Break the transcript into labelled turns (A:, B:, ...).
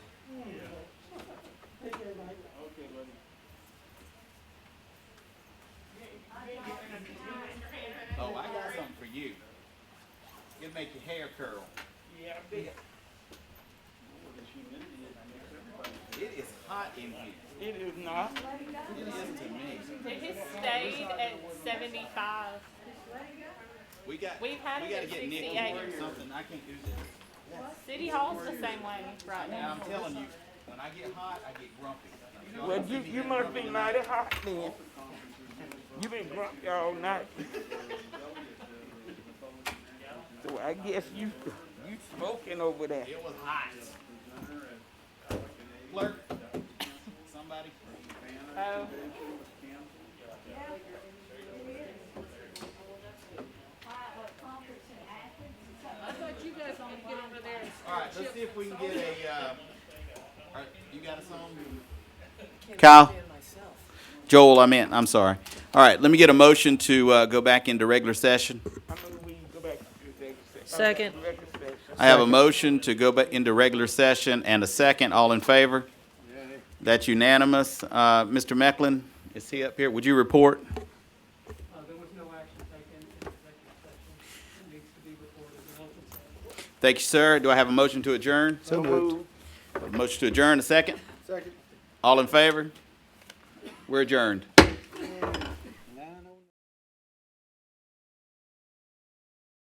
A: Oh, it'd make your hair curl.
B: Yeah, I bet.
C: Well, this humidity is next to everybody.
A: It is hot in here.
B: It is not.
A: It is to me.
D: It has stayed at 75.
A: We got, we
D: We've had it
A: gotta
D: at
A: get Nick
D: 68.
A: or something. I can't do this.
D: City Hall's the same way right
A: Now,
D: now.
A: I'm telling you, when I get hot, I get grumpy. Y'all
B: Well,
A: don't
B: you,
A: see me
B: you
A: that
B: must
A: grumpy
B: be
A: now.
B: mighty hot then. You been grumpy all night. So I guess you, you smoking over there.
A: It was hot. Clerk, somebody.
D: Oh,
E: I thought you guys wanted to get over there. and
A: All right, let's see if we can get a, uh, all right, you got a song? Kyle? Joel, I meant, I'm sorry. All right, let me get a motion to, uh, go back into regular session.
B: I mean, we go back to the executive session.
F: Second.
B: Executive session.
A: I have a motion to go back into regular session and a second. All in favor? That's unanimous. Uh, Mr. Mecklin, is he up here? Would you report?
G: Uh, there was no action taken in executive session. It needs to be reported in open session.
A: Thank you, sir. Do I have a motion to adjourn?
B: So moved.
A: Motion to adjourn, a second? Second. All in favor? We're adjourned.